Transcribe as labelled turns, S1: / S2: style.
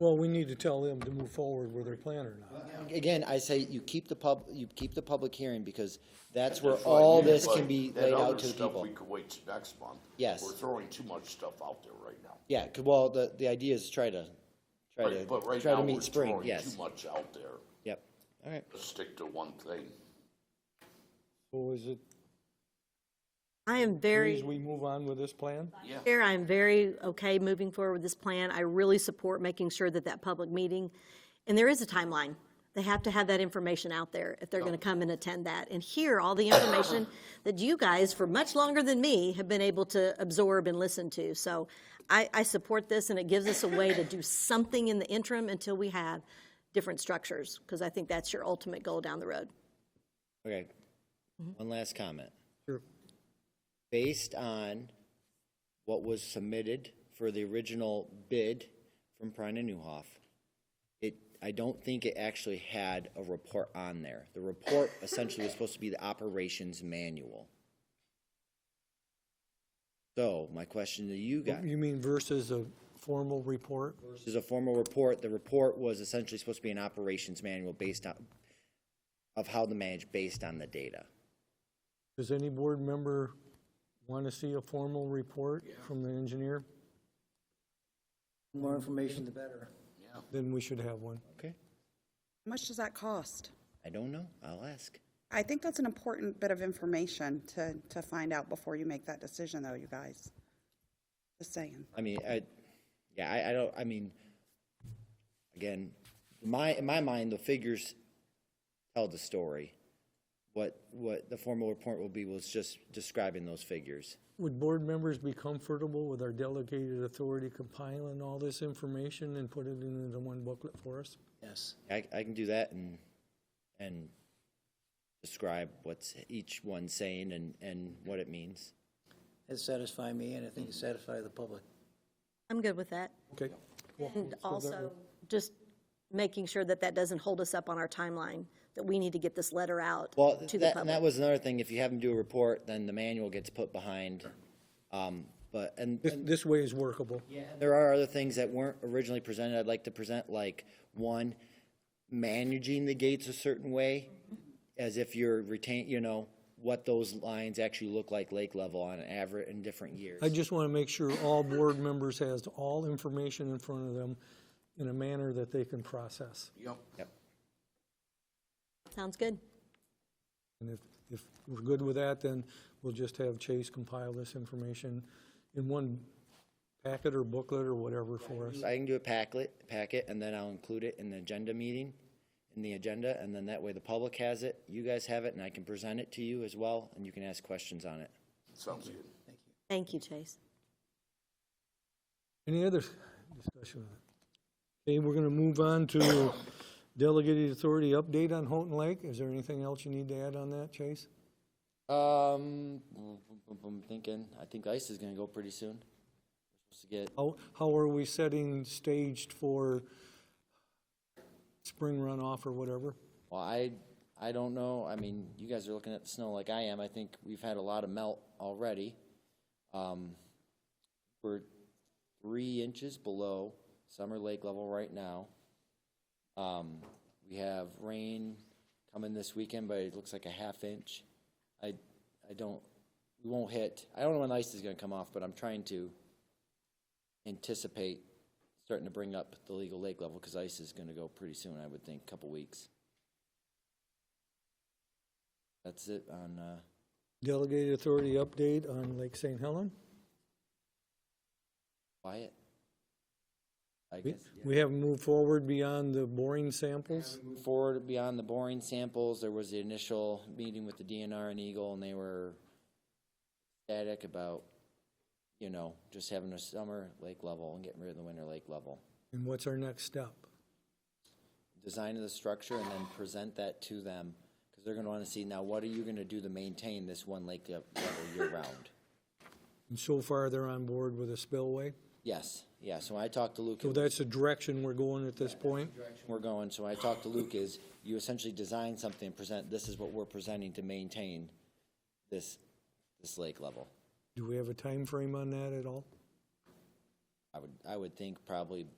S1: Well, we need to tell them to move forward with their plan or not.
S2: Again, I say you keep the pub, you keep the public hearing because that's where all this can be laid out to the
S3: That other stuff,
S2: people.
S3: we could wait till next month.
S2: Yes.
S3: We're throwing too much stuff out there right now.
S2: Yeah, 'cause- well, the, the idea is try to, try
S3: Right, But
S2: to,
S3: right
S2: try
S3: now,
S2: to
S3: we're
S2: meet spring,
S3: throwing
S2: yes.
S3: too much out there.
S2: Yep, all right.
S3: Let's stick to one thing.
S1: So is it,
S4: I am
S1: as
S4: very,
S1: we move on with this plan?
S3: Yeah.
S4: Chair, I am very okay moving forward with this plan. I really support making sure that that public meeting, and there is a timeline. They have to have that information out there if they're going to come and attend that and hear all the information that you guys, for much longer than me, have been able to absorb and listen to. So I, I support this, and it gives us a way to do something in the interim until we have different structures, because I think that's your ultimate goal down the road.
S2: Okay, one last comment. Based on what was submitted for the original bid from Prine and Newhoff, it, I don't think it actually had a report on there. The report essentially was supposed to be the operations manual. So my question to you guys.
S1: You mean versus a formal report?
S2: This is a formal report. The report was essentially supposed to be an operations manual based on, of how to manage based on the data.
S1: Does any board member want to see a formal report from the engineer?
S5: More information, the better.
S1: Then we should have one.
S2: Okay.
S6: How much does that cost?
S2: I don't know. I'll ask.
S6: I think that's an important bit of information to, to find out before you make that decision, though, you guys. Just saying.
S2: I mean, I, yeah, I, I don't, I mean, again, my, in my mind, the figures tell the story. What, what the formal report will be was just describing those figures.
S1: Would board members be comfortable with our delegated authority compiling all this information and put it into one booklet for us?
S5: Yes.
S2: I, I can do that and, and describe what's each one saying and, and what it means.
S5: It satisfied me, and I think it satisfied the public.
S4: I'm good with that.
S1: Okay.
S4: And also, just making sure that that doesn't hold us up on our timeline, that we need to get this letter out
S2: Well,
S4: to the
S2: that, and that
S4: public.
S2: was another thing, if you have them do a report, then the manual gets put behind. Um, but, and,
S1: This, this way is workable.
S2: and there are other things that weren't originally presented I'd like to present, like, one, managing the gates a certain way, as if you're retain, you know, what those lines actually look like lake level on an average in different years.
S1: I just want to make sure all board members has all information in front of them in a manner that they can process.
S3: Yep.
S2: Yep.
S4: Sounds good.
S1: And if, if we're good with that, then we'll just have Chase compile this information in one packet or booklet or whatever for us.
S2: I can do a packet, packet, and then I'll include it in the agenda meeting, in the agenda, and then that way the public has it, you guys have it, and I can present it to you as well, and you can ask questions on it.
S3: Sounds good.
S4: Thank you, Chase.
S1: Any other discussion on it? Okay, we're going to move on to delegated authority update on Houghton Lake. Is there anything else you need to add on that, Chase?
S2: Um, I'm thinking, I think ice is gonna go pretty soon. We're supposed to get,
S1: How, how are we setting staged for spring runoff or whatever?
S2: well, I, I don't know, I mean, you guys are looking at the snow like I am, I think we've had a lot of melt already. Um, we're three inches below summer lake level right now. Um, we have rain coming this weekend, but it looks like a half inch. I, I don't, we won't hit, I don't know when ice is gonna come off, but I'm trying to anticipate starting to bring up the legal lake level, because ice is gonna go pretty soon, I would think, couple weeks. That's it on, uh,
S1: Delegated authority update on Lake St. Helen.
S2: Wyatt. I
S1: We-
S2: guess.
S1: We haven't moved forward beyond the boring samples.
S2: Move Forward beyond the boring samples, there was the initial meeting with the DNR and Eagle, and they were static about, you know, just having a summer lake level and getting rid of the winter lake level.
S1: And what's our next step?
S2: Design of the structure and then present that to them, because they're gonna wanna see, now, what are you gonna do to maintain this one lake le- level year-round?
S1: And so far, they're on board with a spillway.
S2: Yes, yeah, so when I talked to Luke,
S1: So that's the direction we're going at this point.
S2: we're going, so I talked to Luke is, you essentially design something, and present, this is what we're presenting to maintain this, this lake level.
S1: Do we have a time frame on that at all?
S2: I would, I would think probably